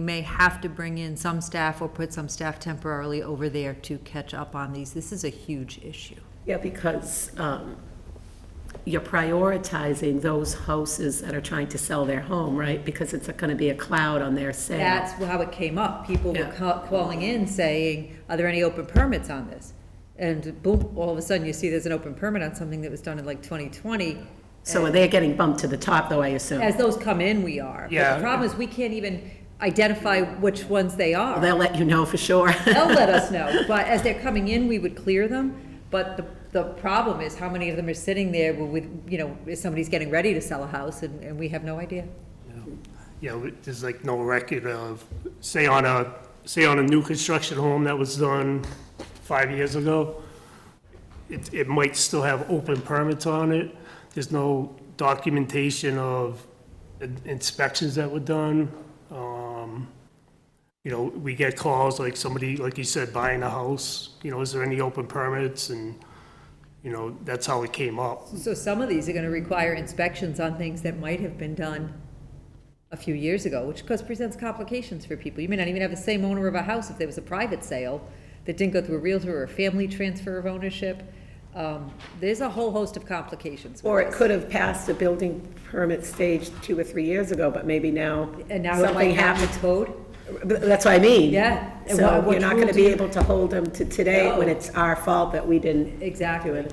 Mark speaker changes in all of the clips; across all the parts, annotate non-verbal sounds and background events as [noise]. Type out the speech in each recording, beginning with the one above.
Speaker 1: We may have to bring in some staff or put some staff temporarily over there to catch up on these. This is a huge issue.
Speaker 2: Yeah, because um, you're prioritizing those houses that are trying to sell their home, right? Because it's going to be a cloud on their sale.
Speaker 1: That's how it came up. People were
Speaker 2: Yeah.
Speaker 1: ca- calling in saying, are there any open permits on this? And boom, all of a sudden you see there's an open permit on something that was done in like 2020.
Speaker 2: So they're getting bumped to the top, though, I assume.
Speaker 1: As those come in, we are. But
Speaker 3: Yeah.
Speaker 1: The problem is we can't even identify which ones they are.
Speaker 2: They'll let you know for sure. [laughs]
Speaker 1: They'll let us know, but as they're coming in, we would clear them. But the, the problem is how many of them are sitting there with, you know, if somebody's getting ready to sell a house and, and we have no idea.
Speaker 3: you know, there's like no record of, say on a, say on a new construction home that was done five years ago, it, it might still have open permits on it. There's no documentation of in- inspections that were done. Um, You know, we get calls like somebody, like you said, buying a house, you know, is there any open permits? And, you know, that's how it came up.
Speaker 1: So some of these are gonna require inspections on things that might have been done a few years ago, which of course presents complications for people. You may not even have the same owner of a house if there was a private sale that didn't go through a realtor or a family transfer of ownership. Um, there's a whole host of complications. with
Speaker 4: Or it
Speaker 1: this.
Speaker 4: could have passed a building permit stage two or three years ago, but maybe now
Speaker 1: And now it might
Speaker 4: something
Speaker 1: have the
Speaker 4: happened.
Speaker 1: code.
Speaker 4: But That's what I mean.
Speaker 1: Yeah. And what-
Speaker 4: So
Speaker 1: what
Speaker 4: you're not
Speaker 1: rule
Speaker 4: going to
Speaker 1: do
Speaker 4: be
Speaker 1: you-
Speaker 4: able to hold them to today when
Speaker 1: No.
Speaker 4: it's our fault that we didn't.
Speaker 1: Exactly,
Speaker 4: to it.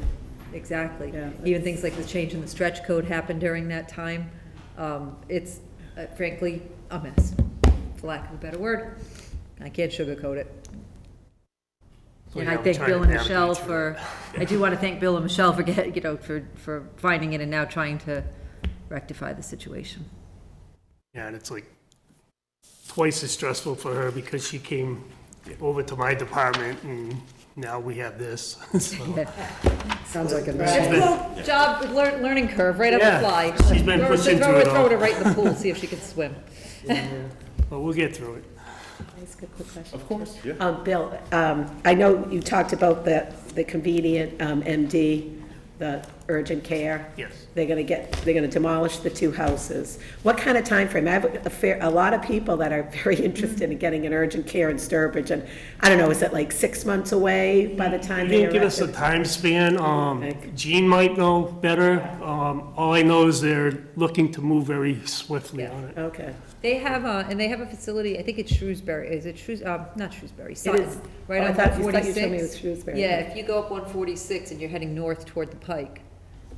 Speaker 1: exactly.
Speaker 4: Yeah.
Speaker 1: Even things like the change in the stretch code happened during that time. Um, It's uh, frankly a mess, for lack of a better word. I can't sugarcoat it.
Speaker 3: So,
Speaker 1: And
Speaker 3: yeah,
Speaker 1: I
Speaker 3: we're
Speaker 1: thank
Speaker 3: trying
Speaker 1: Bill
Speaker 3: to
Speaker 1: and
Speaker 3: navigate
Speaker 1: Michelle
Speaker 3: through
Speaker 1: for, I do want to thank Bill and Michelle for, get- you know, for, for finding it and now trying to rectify the situation.
Speaker 3: Yeah, and it's like twice as stressful for her because she came over to my department and now we have this. [laughs] So,
Speaker 4: Sounds like a
Speaker 1: Difficult job, lear- learning curve, right up the
Speaker 3: Yeah,
Speaker 1: fly.
Speaker 3: she's
Speaker 1: Throw
Speaker 3: been
Speaker 1: her-
Speaker 3: pushing
Speaker 1: throw
Speaker 3: through
Speaker 1: her-
Speaker 3: it all.
Speaker 1: Throw her right in the pool, see if
Speaker 3: [laughs]
Speaker 1: she can swim.
Speaker 3: But we'll get through it.
Speaker 4: Ask a quick question.
Speaker 5: Of course, yeah.
Speaker 4: Um, Bill, um, I know you talked about the, the convenient um, MD, the urgent care.
Speaker 3: Yes.
Speaker 4: They're going to get, they're going to demolish the two houses. What kind of timeframe? I have a fair, a lot of people that are [laughs] very interested in getting an urgent care in Sturbridge, and I don't know, is it like six months away by the
Speaker 3: You
Speaker 4: time they
Speaker 3: didn't
Speaker 4: erect
Speaker 3: give us a
Speaker 4: it?
Speaker 3: time span.
Speaker 4: Okay.
Speaker 3: Um, Jean might know better. Um, all I know is they're looking to move very swiftly on it.
Speaker 4: Okay.
Speaker 1: They have, uh, and they have a facility, I think it's Shrewsbury, is it Shrews, um, not Shrewsbury, Sutton,
Speaker 4: is.
Speaker 1: right
Speaker 4: Oh, I
Speaker 1: on
Speaker 4: thought
Speaker 1: one
Speaker 4: you- thought you told me
Speaker 1: forty-six.
Speaker 4: it was Shrewsbury.
Speaker 1: Yeah, if you go up one forty-six and you're heading north toward the Pike,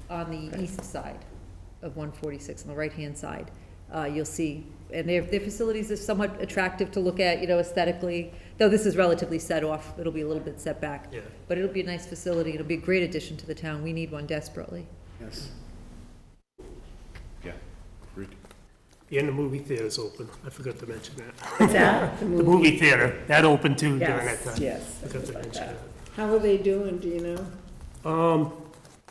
Speaker 1: on the east side of one forty-six, on the right-hand side, uh, you'll see, and their, their facilities are somewhat attractive to look at, you know, aesthetically, though this is relatively set off, it'll be a little bit set back.
Speaker 3: Yeah.
Speaker 1: But it'll be a nice facility, it'll be a great addition to the town, we need one desperately.
Speaker 5: Yes. Yeah, agreed.
Speaker 3: And the movie theater's open. I forgot to mention that.
Speaker 4: Is that?
Speaker 3: [laughs] The movie theater, that opened too during that
Speaker 4: Yes,
Speaker 3: time.
Speaker 4: yes.
Speaker 3: Forgot to mention that.
Speaker 4: How are they doing, do you know?
Speaker 3: Um,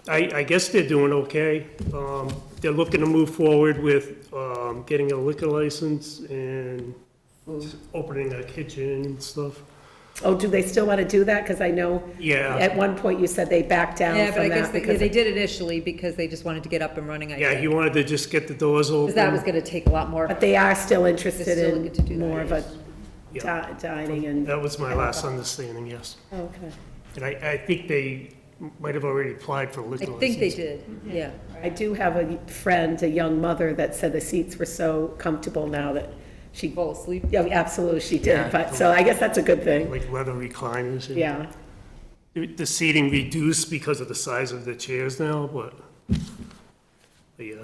Speaker 3: I, I guess they're doing okay. Um, They're looking to move forward with um, getting a liquor license and opening a kitchen and stuff.
Speaker 4: Oh, do they still want to do that? Because I know
Speaker 3: Yeah,
Speaker 4: at one point you said they backed down
Speaker 1: Yeah, but I
Speaker 4: from
Speaker 1: guess
Speaker 4: that
Speaker 1: they,
Speaker 4: because
Speaker 1: they did initially because they just wanted to get up and running, I
Speaker 3: yeah, he
Speaker 1: think.
Speaker 3: wanted to just get the doors
Speaker 1: Because that was
Speaker 3: open.
Speaker 1: gonna take a lot more.
Speaker 4: But they are still
Speaker 1: They're
Speaker 4: interested
Speaker 1: still looking to do
Speaker 4: in
Speaker 1: that,
Speaker 4: more of a
Speaker 3: Yeah. Oh,
Speaker 4: di- dining and,
Speaker 3: That was my last understanding, yes.
Speaker 4: okay.
Speaker 3: And I, I think they might have already applied for
Speaker 1: I
Speaker 3: liquor license.
Speaker 1: think they did, yeah.
Speaker 4: I do have a friend, a young mother, that said the seats were so comfortable now that she,
Speaker 1: Fall asleep.
Speaker 4: yeah, absolutely, she
Speaker 3: Yeah.
Speaker 4: did, but, so I guess that's a good thing,
Speaker 3: Like leather recliners. and-
Speaker 4: yeah.
Speaker 3: The seating reduced because of the size of the chairs now, but, but yeah.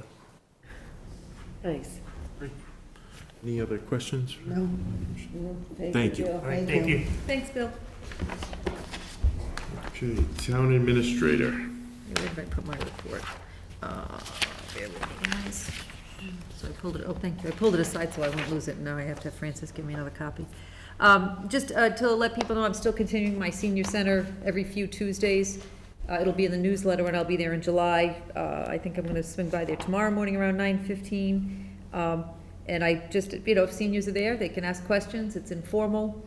Speaker 4: Nice.
Speaker 5: Any other questions?
Speaker 4: No.
Speaker 5: Thank you.
Speaker 4: Bill.
Speaker 3: All right, thank you.
Speaker 1: Thanks, Bill.
Speaker 5: Okay, town administrator.
Speaker 1: Where did I put my report? Uh, bear with me, guys. So I pulled it, oh, thank you, I pulled it aside so I won't lose it, and now I have to have Francis give me another copy. Um, Just uh, to let people know, I'm still continuing my senior center every few Tuesdays. Uh, It'll be in the newsletter, and I'll be there in July. Uh, I think I'm gonna swing by there tomorrow morning around nine fifteen. Um, And I just, you know, if seniors are there, they can ask questions, it's informal,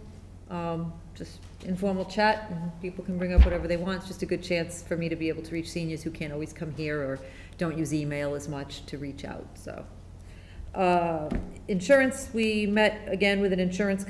Speaker 1: um, just informal chat, and people can bring up whatever they want. It's just a good chance for me to be able to reach seniors who can't always come here or don't use email as much to reach out, so. Um, Uh, Insurance, we met again with an insurance